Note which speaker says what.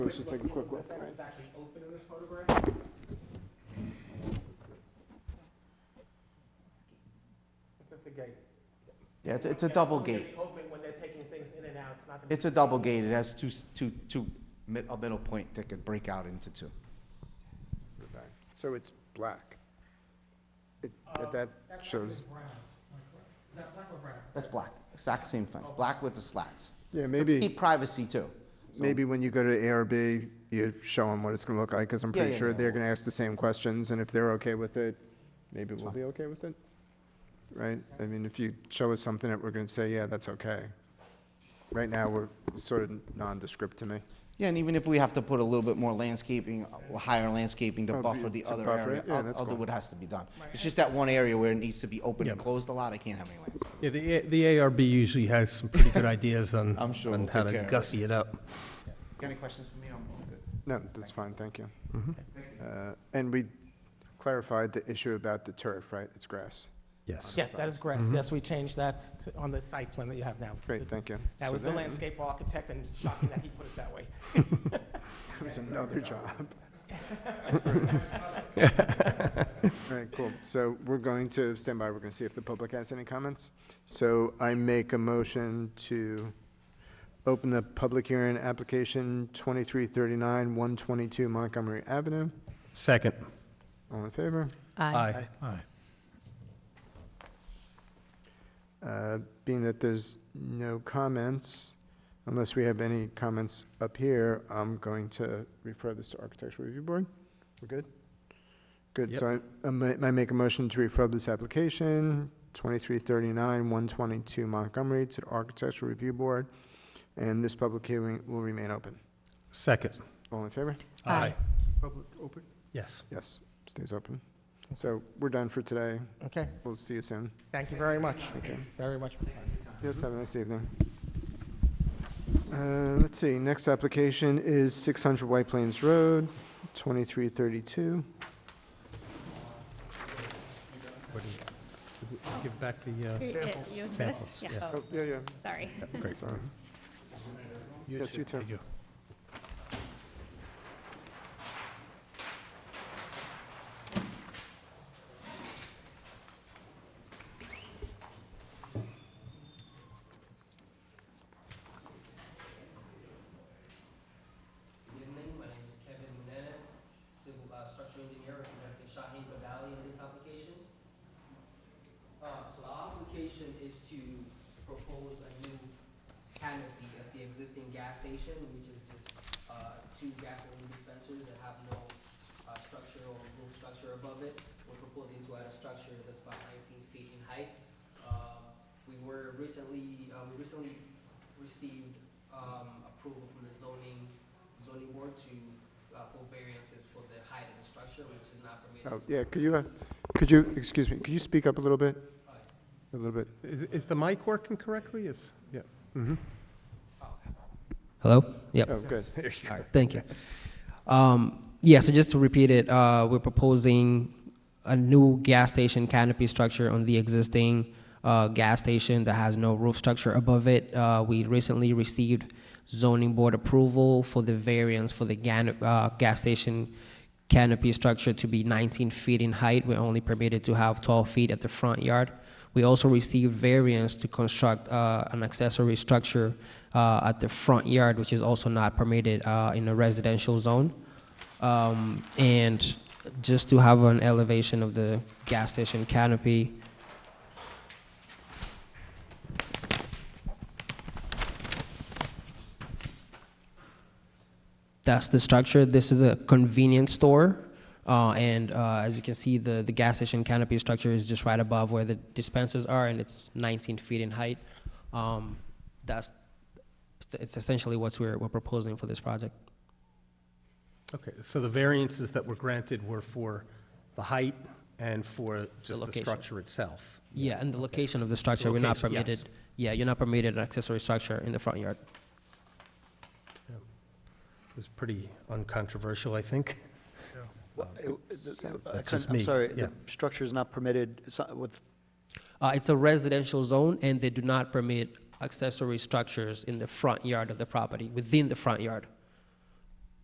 Speaker 1: Let's just take a quick look.
Speaker 2: Fence is actually open in this photograph. It's just a gate.
Speaker 3: Yeah, it's, it's a double
Speaker 2: It's gonna
Speaker 3: gate.
Speaker 2: be Open when they're taking things in and out, it's not gonna be.
Speaker 3: It's a double gate. It has two, s- two, two, mid- a middle point that could break out into two.
Speaker 1: So it's black. It-
Speaker 2: Uh,
Speaker 1: That
Speaker 2: That black is
Speaker 1: shows,
Speaker 2: brown. Is that black or brown?
Speaker 3: That's black, exact same fence, black with the slats.
Speaker 1: yeah, maybe,
Speaker 3: Keep privacy too. So-
Speaker 1: maybe when you go to ARB, you show them what it's going to look like, because I'm
Speaker 3: Yeah,
Speaker 1: pretty
Speaker 3: yeah,
Speaker 1: sure
Speaker 3: yeah.
Speaker 1: they're going to ask the same questions, and if they're okay with it, maybe we'll be okay with it, right? I mean, if you show us something that we're going to say, yeah, that's okay. Right now, we're sort of nondescript to me.
Speaker 3: Yeah, and even if we have to put a little bit more landscaping, uh, higher landscaping to
Speaker 1: Oh,
Speaker 3: buffer
Speaker 1: be-
Speaker 3: the
Speaker 1: to
Speaker 3: other
Speaker 1: buffer
Speaker 3: area,
Speaker 1: it? Yeah,
Speaker 3: I'll,
Speaker 1: that's
Speaker 3: I'll do
Speaker 1: cool.
Speaker 3: what has to be done. It's just that one area where it needs to be open and closed a lot, I can't have any landscaping.
Speaker 4: Yeah, the, A- the ARB usually has some pretty good ideas on,
Speaker 3: I'm sure
Speaker 4: on
Speaker 3: we'll
Speaker 4: how
Speaker 3: take care
Speaker 4: to
Speaker 3: of it.
Speaker 4: gussy it up.
Speaker 3: Got any questions for me? I'm all good.
Speaker 1: No, that's fine, thank you.
Speaker 2: Mm-hmm.
Speaker 1: Uh, And we clarified the issue about the turf, right? It's grass.
Speaker 4: Yes.
Speaker 2: Yes, that is grass, yes, we changed that to- on the site plan that you have now.
Speaker 1: Great, thank you.
Speaker 2: That
Speaker 1: So
Speaker 2: was the
Speaker 1: then-
Speaker 2: landscape architect, and it's shocking that he put it that way.
Speaker 1: That was another job. All right, cool. So we're going to stand by. We're going to see if the public has any comments. So I make a motion to open the public hearing, application 2339, 122 Montgomery Avenue.
Speaker 4: Second.
Speaker 1: All in favor?
Speaker 4: Aye.
Speaker 1: Uh, Being that there's no comments, unless we have any comments up here, I'm going to refer this to Architectural Review Board. We're good? Good, so I- I ma- I make a motion to refer this application, 2339, 122 Montgomery, to the Architectural Review Board, and this public hearing will remain open.
Speaker 4: Second.
Speaker 1: All in favor?
Speaker 4: Aye.
Speaker 1: Public open?
Speaker 4: Yes.
Speaker 1: Yes, stays open. So we're done for today.
Speaker 2: Okay,
Speaker 1: We'll see you soon.
Speaker 2: thank you very much,
Speaker 1: Okay.
Speaker 2: very much. for your time.
Speaker 1: Yes, have a nice evening. Uh, Let's see, next application is 600 White Plains Road, 2332.
Speaker 4: What do you- Give back the uh,
Speaker 5: You- you-
Speaker 4: samples.
Speaker 5: yeah.
Speaker 4: Yeah.
Speaker 1: Oh, yeah, yeah.
Speaker 5: Sorry.
Speaker 4: Great.
Speaker 1: Sorry. Yes, you too.
Speaker 4: Thank you.
Speaker 6: Good evening, my name is Kevin Manette, civil, uh, structural engineer representing Shahinga Valley in this application. Uh, so our application is to propose a new canopy at the existing gas station, which is just, uh, two gasoline dispensers that have no, uh, structure or roof structure above it. We're proposing to add a structure that's about nineteen feet in height. Um, we were recently, uh, we recently received, um, approval from the zoning zoning board to, uh, for variances for the height of the structure, which is not permitted.
Speaker 1: Oh, Yeah, could you, uh, could you, excuse me, could you speak up a little bit?
Speaker 6: Uh,
Speaker 1: A little bit.
Speaker 4: Is, is the mic working correctly? Is, yeah. Mhm.
Speaker 6: Hello? Yep.
Speaker 1: Oh, good.
Speaker 6: All right, thank you. Um, yeah, so just to repeat it, uh, we're proposing a new gas station canopy structure on the existing uh, gas station that has no roof structure above it. Uh, we recently received zoning board approval for the variance for the gan- uh, gas station canopy structure to be 19 feet in height. We're only permitted to have 12 feet at the front yard. We also received variance to construct uh, an accessory structure uh, at the front yard, which is also not permitted uh, in a residential zone. Um, and just to have an elevation of the gas station canopy. That's the structure. This is a convenience store. Uh, and uh, as you can see, the, the gas station canopy structure is just right above where the dispensers are, and it's 19 feet in height. Um, that's it's essentially what we're, we're proposing for this project.
Speaker 4: Okay, so the variances that were granted were for the height and for just the
Speaker 6: location.
Speaker 4: structure itself.
Speaker 6: Yeah, and the location of the structure, we're not
Speaker 4: location, yes.
Speaker 6: permitted, yeah, you're not permitted an accessory structure in the front yard.
Speaker 4: It was pretty uncontroversial, I think.
Speaker 7: Well, it- the-
Speaker 1: so
Speaker 7: uh,
Speaker 4: that's
Speaker 7: con-
Speaker 4: just
Speaker 7: I'm
Speaker 4: me,
Speaker 7: sorry,
Speaker 4: yeah.
Speaker 7: the structure is not permitted so- with,
Speaker 6: Uh, it's a residential zone, and they do not permit accessory structures in the front yard of the property, within the front yard.